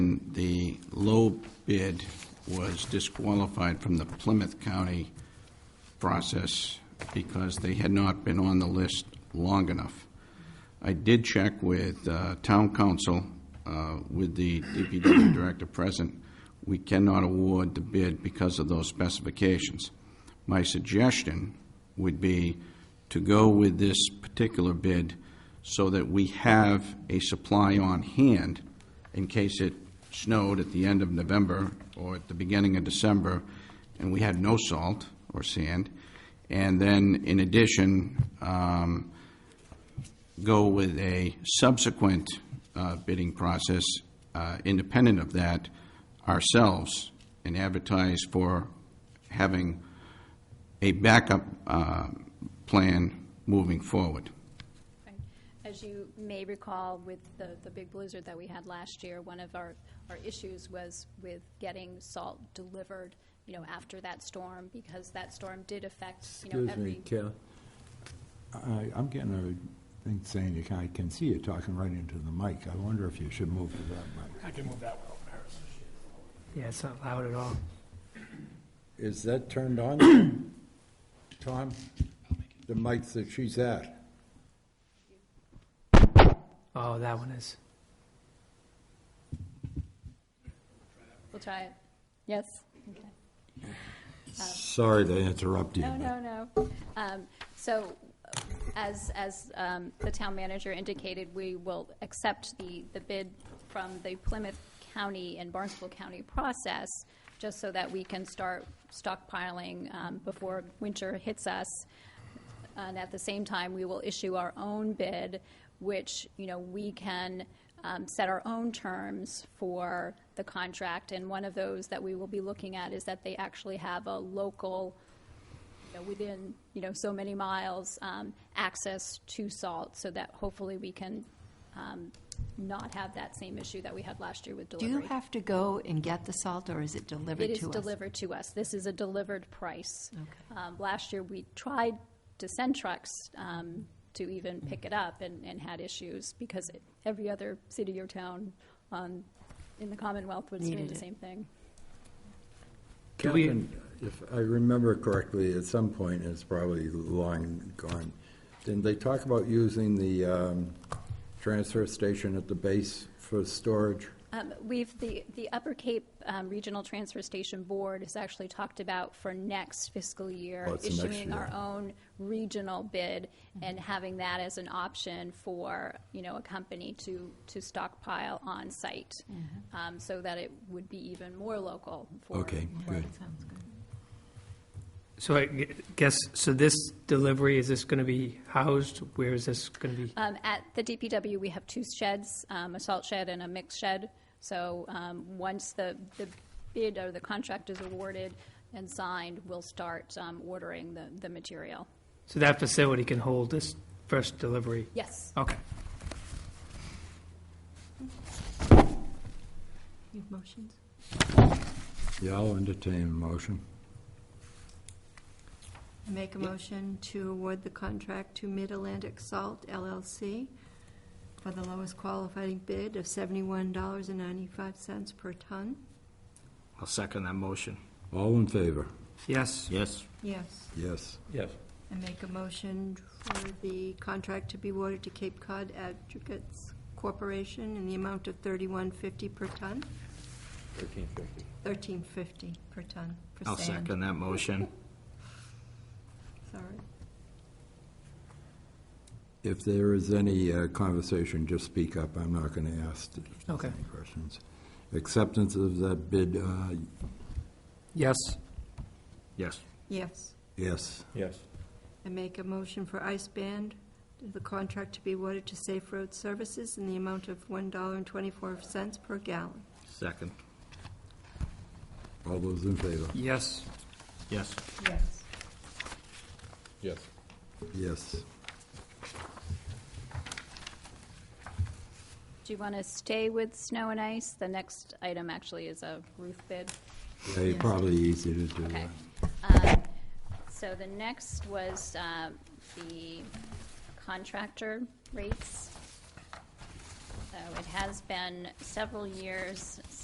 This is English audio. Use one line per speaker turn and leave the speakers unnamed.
and the low bid was disqualified from the Plymouth County process because they had not been on the list long enough. I did check with uh, town council, uh, with the DPW director present, we cannot award the bid because of those specifications. My suggestion would be to go with this particular bid so that we have a supply on hand in case it snowed at the end of November or at the beginning of December, and we had no salt or sand. And then, in addition, um, go with a subsequent uh, bidding process uh, independent of that ourselves and advertise for having a backup uh, plan moving forward.
Right. As you may recall, with the, the big blizzard that we had last year, one of our, our issues was with getting salt delivered, you know, after that storm, because that storm did affect, you know,
Excuse me,
every.
Cal. I, I'm getting a thing saying, you can- I can see you talking right into the mic. I wonder if you should move to that mic.
I can move that one over.
Yeah, it's not loud at all.
Is that turned on, Tom? The mic that she's at?
Oh, that one is.
We'll try it. Yes? Okay.
Sorry to interrupt you.
Oh. No,
but-
no, no. Um, So as, as um, the town manager indicated, we will accept the, the bid from the Plymouth County and Barnstable County process, just so that we can start stockpiling um, before winter hits us. And at the same time, we will issue our own bid, which, you know, we can um, set our own terms for the contract. And one of those that we will be looking at is that they actually have a local you know, within, you know, so many miles, um, access to salt, so that hopefully we can um, not have that same issue that we had last year with
Do
delivery.
you have to go and get the salt, or is it
It
delivered
is
to us?
delivered to us. This is a delivered price.
Okay.
Um, Last year, we tried to send trucks um, to even
Mm-hmm.
pick it up and, and had issues because it- every other city or town um, in the Commonwealth was doing
Needed
the
it.
same thing.
Do we-
Captain, if I remember correctly, at some point, it's probably long gone, didn't they talk about using the um, transfer station at the base for storage?
Um, We've, the, the Upper Cape um, Regional Transfer Station Board has actually talked about for next fiscal year
Oh, it's next
issuing our
year.
own regional bid and having that as an option for, you know, a company to, to stockpile on-site, um, so that it would be even more local for.
Okay, good.
Sounds good.
So I gu- guess, so this delivery, is this going to be housed? Where is this going to be?
Um, At the DPW, we have two sheds, um, a salt shed and a mix shed. So um, once the the bid or the contract is awarded and signed, we'll start um, ordering the the material.
So that facility can hold this first delivery?
Yes.
Okay.
You have motions?
Yeah, I'll entertain a motion.
Make a motion to award the contract to Mid-Atlantic Salt LLC for the lowest qualifying bid of $71.95 per ton.
I'll second that motion.
All in favor?
Yes.
Yes.
Yes.
Yes.
Yes.
And make a motion for the contract to be awarded to Cape Cod Advocates Corporation in the amount of $31.50 per ton,
Thirteen fifty.
$13.50 per ton for
I'll
sand.
second that motion.
Sorry.
If there is any uh, conversation, just speak up. I'm not going to ask if there's
Okay.
any questions. Acceptance of that bid, uh,
Yes.
Yes.
Yes.
yes.
Yes.
And make a motion for Ice Band, the contract to be awarded to Safe Road Services in the amount of $1.24 per gallon.
Second.
All those in favor?
Yes.
Yes.
Yes.
Yes.
Yes.
Do you want to stay with snow and ice? The next item actually is a roof bid.
Yeah, you're probably easy to do
Okay.
that.
Um, So the next was uh, the contractor rates. So it has been several years